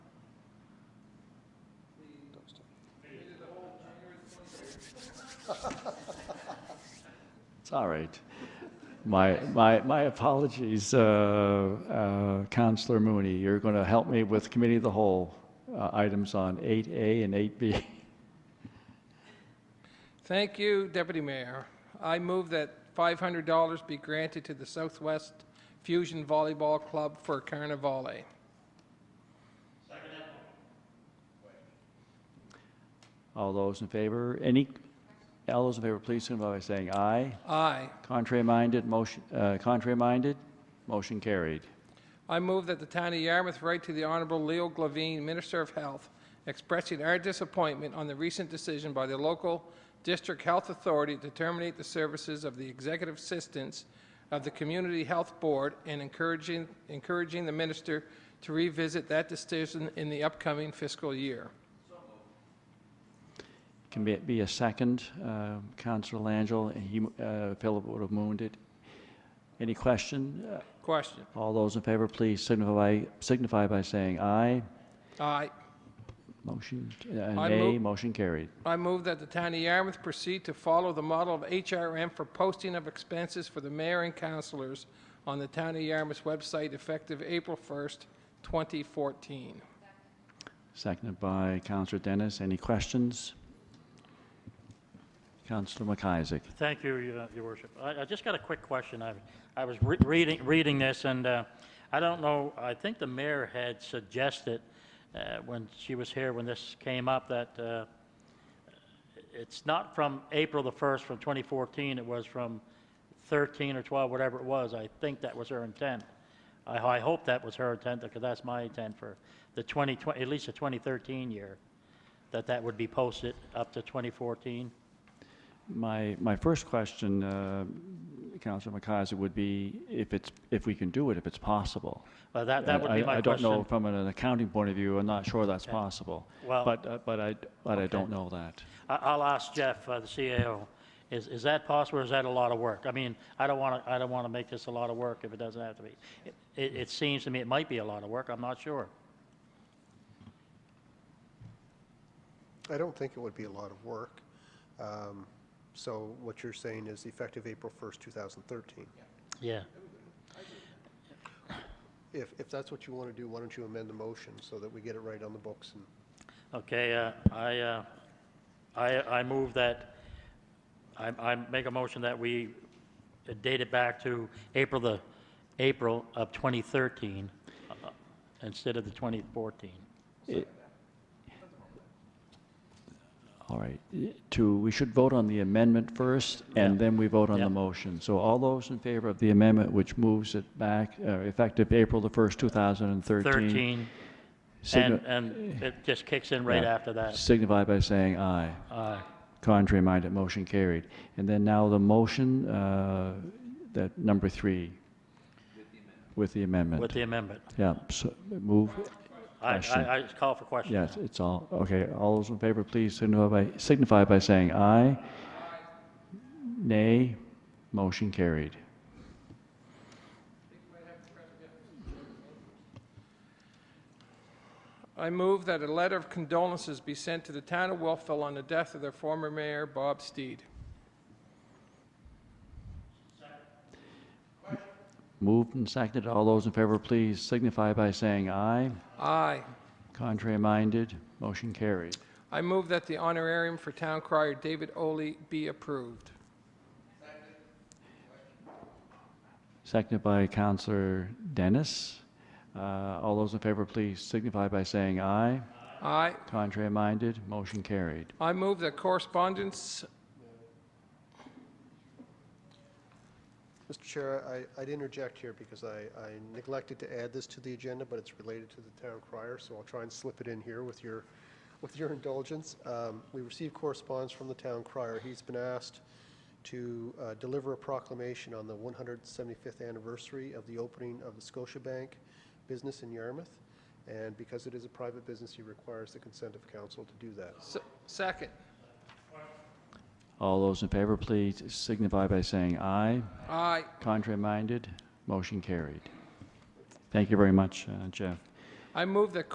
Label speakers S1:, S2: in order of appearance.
S1: It's all right. My, my, my apologies, uh, uh, Counselor Mooney. You're going to help me with committee of the whole uh, items on 8A and 8B.
S2: Thank you, Deputy Mayor. I move that $500 be granted to the Southwest Fusion Volleyball Club for Carnivale.
S1: All those in favor, any, all those in favor, please signify by saying aye.
S2: Aye.
S1: Contrary-minded, motion, uh, contrary-minded, motion carried.
S2: I move that the town of Yarmouth write to the Honorable Leo Glavine, Minister of Health, expressing our disappointment on the recent decision by the local district health authority to terminate the services of the executive assistants of the Community Health Board and encouraging, encouraging the minister to revisit that decision in the upcoming fiscal year.
S1: Can be, be a second, uh, Counselor Langell, he, uh, Philip would have mooned it. Any question? Uh,
S2: Question.
S1: All those in favor, please signify, signify by saying aye.
S2: Aye.
S1: Motion, uh,
S2: I
S1: nay,
S2: move-
S1: motion carried.
S2: I move that the town of Yarmouth proceed to follow the model of HRM for posting of expenses for the mayor and councilors on the town of Yarmouth's website effective April 1st, 2014.
S1: Seconded by Counselor Dennis. Any questions? Counselor McIsaac.
S3: Thank you, Your Your Worship. I I just got a quick question. I I was re- reading reading this, and uh, I don't know, I think the mayor had suggested uh, when she was here, when this came up, that uh, it's not from April the 1st from 2014, it was from 13 or 12, whatever it was. I think that was her intent. I I hope that was her intent, because that's my intent for the 2020, at least the 2013 year, that that would be posted up to 2014.
S1: My, my first question, uh, Counselor McIsaac, would be if it's, if we can do it, if it's possible.
S3: Well, that, Uh, that would be
S1: I-
S3: my
S1: I don't
S3: question.
S1: know, from an accounting point of view, I'm not sure that's possible.
S3: Well-
S1: But, uh, but I, but I don't know that.
S3: I- I'll ask Jeff, uh, the CAO, is, is that possible, or is that a lot of work? I mean, I don't want to, I don't want to make this a lot of work if it doesn't have to be. It, it seems to me it might be a lot of work, I'm not sure.
S4: I don't think it would be a lot of work. Um, So what you're saying is effective April 1st, 2013.
S3: Yeah.
S4: If, if that's what you want to do, why don't you amend the motion so that we get it right on the books? and
S3: Okay, uh, I, uh, I, I move that, I, I make a motion that we uh, date it back to April the, April of 2013, uh, instead of the 2014.
S1: It- All right, i- to, we should vote on the amendment first, and then we vote on the
S3: Yeah.
S1: motion. So all those in favor of the amendment, which moves it back, uh, effective April the 1st, 2013.
S3: 13,
S1: signi-
S3: and, and it just kicks in right
S1: Yeah.
S3: after that. uh,
S1: Signify by saying aye.
S3: Aye.
S1: Contrary-minded, motion carried. And then now the motion, uh, that, number three. With the amendment.
S3: With the amendment.
S1: Yeah, so, move,
S3: I,
S1: Question.
S3: I, I just call for question.
S1: yes, it's all, okay, all those in favor, please signify by, signify by saying aye. Nay, motion carried.
S2: I move that a letter of condolences be sent to the town of Wolfville on the death of their former mayor, Bob Steed.
S1: Moved and seconded, all those in favor, please signify by saying aye.
S2: Aye.
S1: Contrary-minded, motion carried.
S2: I move that the honorarium for town crier David Oley be approved.
S1: Seconded by Counselor Dennis. Uh, All those in favor, please signify by saying aye.
S2: Aye.
S1: Contrary-minded, motion carried.
S2: I move that correspondence,
S4: Mr. Chair, I, I'd interject here because I, I neglected to add this to the agenda, but it's related to the town crier, so I'll try and slip it in here with your, with your indulgence. Um, We received correspondence from the town crier. He's been asked to uh, deliver a proclamation on the 175th anniversary of the opening of the Scotiabank business in Yarmouth, and because it is a private business, he requires the consent of council to do that.
S2: se- second.
S1: All those in favor, please signify by saying aye.
S2: Aye.
S1: Contrary-minded, motion carried. Thank you very much, uh, Jeff.
S2: I move that